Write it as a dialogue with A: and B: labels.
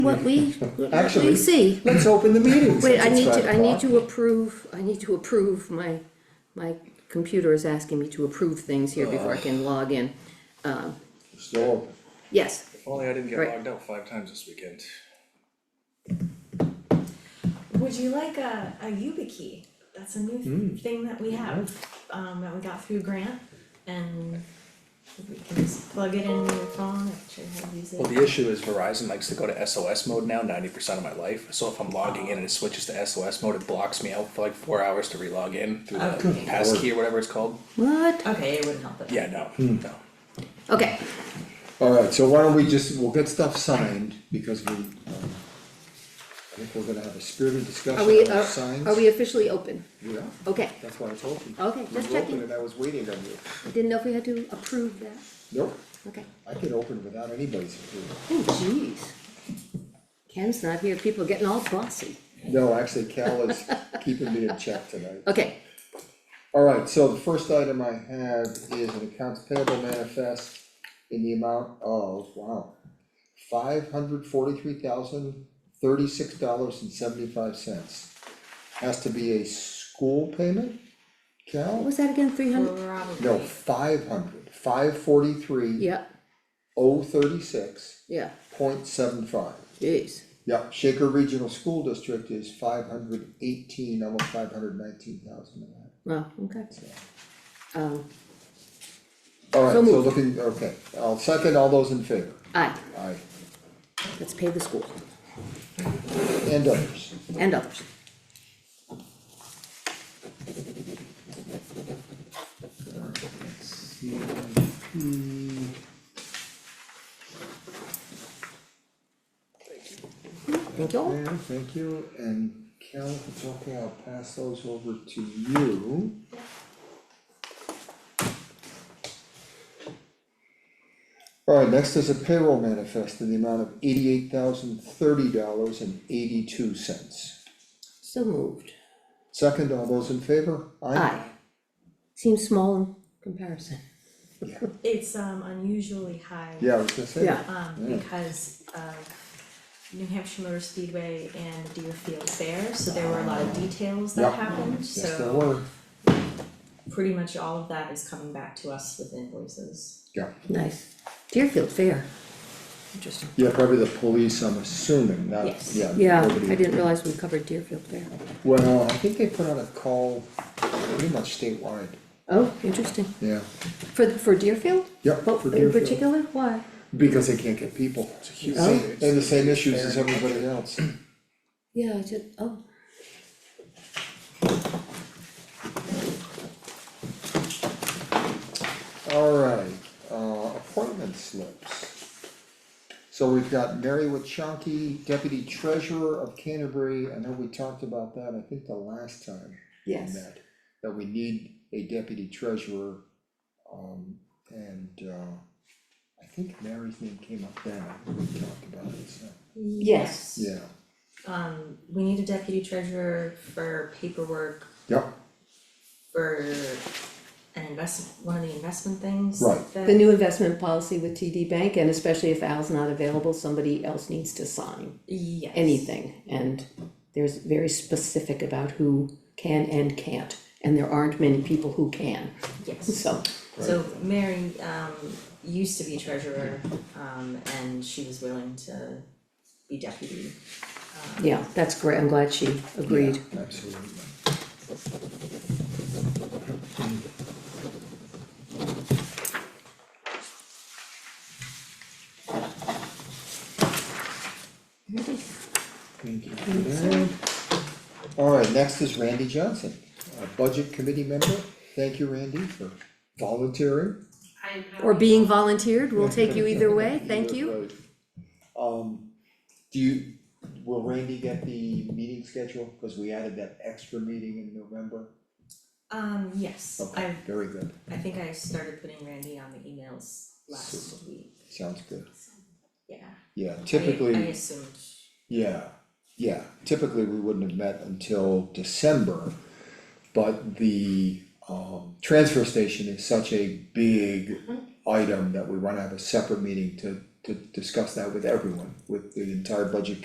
A: What we, what we
B: Actually-
A: see.
B: Let's open the meeting.
A: Wait,
B: since
A: I
B: it's
A: need
B: five
A: to, I need
B: o'clock.
A: to approve, I need to approve, my, my computer is asking me to approve things here before I can log in.
B: Still open.
A: Yes,
C: If only I didn't get
A: Right.
C: logged out five times this weekend.
D: Would you like a, a YubiKey? That's a new
B: Mm.
D: thing that we have, um, that we got through grant and we can just plug it in your phone, actually, how to use
C: Well,
D: it.
C: the issue is Verizon likes to go to SOS mode now ninety percent of my life, so if I'm logging in and it switches to SOS mode, it blocks me out for like four hours to re-log in through the
D: Okay.
C: passkey or whatever it's called.
A: what?
D: Okay, it wouldn't help it.
C: Yeah, no, no.
A: Okay,
B: Alright, so why don't we just, we'll get stuff signed, because we, um, I think we're gonna have a spirited
A: are we,
B: discussion on
A: are
B: signs.
A: are we officially open?
B: Yeah,
A: Okay,
B: that's why I told you.
A: Okay,
B: You
A: just
B: were
A: checking.
B: open and I was waiting on you.
A: I didn't know if we had to approve that,
B: Nope,
A: okay.
B: I could open without anybody's approval.
A: Oh, jeez. Ken's not here, people are getting all bossy.
B: No, actually Cal is keeping me in check tonight.
A: Okay,
B: Alright, so the first item I have is an accounts payable manifest in the amount of, wow, five hundred forty-three thousand thirty-six dollars and seventy-five cents. Has to be a school payment,
A: what
B: Cal?
A: was that again, three hundred?
D: Probably.
B: No, five hundred, five forty-three,
A: Yeah,
B: oh thirty-six,
A: yeah,
B: point seven five.
A: jeez,
B: Yep, Shaker Regional School District is five hundred eighteen, almost five hundred nineteen thousand of that,
A: well, okay,
B: so.
A: um,
B: Alright,
A: So
B: so
A: moved.
B: looking, okay, I'll second all those in favor,
A: aye,
B: aye,
A: let's pay the school
B: and others.
A: and others. Thank you.
B: Yeah, thank you, and Cal, if it's okay, I'll pass those over to you. Alright, next is a payroll manifest in the amount of eighty-eight thousand thirty dollars and eighty-two cents.
A: So moved,
B: Second, all those in favor?
A: aye. Seems small in comparison.
B: Yeah,
D: It's, um, unusually high.
B: Yeah, I was gonna say.
A: Yeah.
D: Um,
B: Yeah.
D: because of New Hampshire Motor Speedway and Deerfield Fair, so there were a lot of details that
B: Yep.
D: happened, so
B: Yes, there were,
D: pretty much all of that is coming back to us with invoices.
B: yeah.
A: Nice. Deerfield Fair. Interesting.
B: Yeah, probably the police, I'm assuming, not,
D: Yes.
B: yeah.
A: Yeah,
B: nobody-
A: I didn't realize we covered Deerfield Fair.
B: Well, I think they put out a call pretty much statewide,
A: Oh, interesting.
B: yeah.
A: For, for Deerfield?
B: Yep,
A: Oh,
B: for
A: In
B: Deerfield.
A: particular, why?
B: Because they can't get people.
A: Oh.
B: They have the same issues as everybody else.
A: Yeah, I just, oh,
B: Alright, uh, appointment slips. So we've got Mary Wachonki, Deputy Treasurer of Canterbury, I know we talked about that, I think the last time. we
A: Yes.
B: met, That we need a deputy treasurer, um, and, uh, I think Mary's name came up then, we talked about it, so,
A: Yes.
B: yeah,
D: Um, we need a deputy treasurer for paperwork
B: yep,
D: for an investment, one of the investment things
B: Right.
D: that-
A: the new investment policy with TD Bank, and especially if Al's not available, somebody else needs to sign
D: Yes.
A: anything. And there's very specific about who can and can't, and there aren't many people who can,
D: Yes.
A: so.
D: So Mary, um, used to be treasurer, um, and she was willing to be deputy.
A: Yeah, that's great, I'm glad she agreed.
B: absolutely. Thank you. Mary. Alright, next is Randy Johnson, a budget committee member, thank you, Randy, for volunteering.
E: I'm
A: Or
E: happy.
A: being volunteered, we'll take you either way, thank you.
B: Um, do you, will Randy get the meeting schedule, cause we added that extra meeting in November?
D: Um, yes,
B: Okay,
D: I,
B: very good,
D: I think I started putting Randy on the emails last week,
B: sounds good,
D: yeah. I-
B: yeah,
D: I
B: typically,
D: assumed,
B: yeah, yeah, typically we wouldn't have met until December. But the, um,
D: Mm-hmm.
B: transfer station is such a big item that we wanna have a separate meeting to to discuss that with everyone, with the entire budget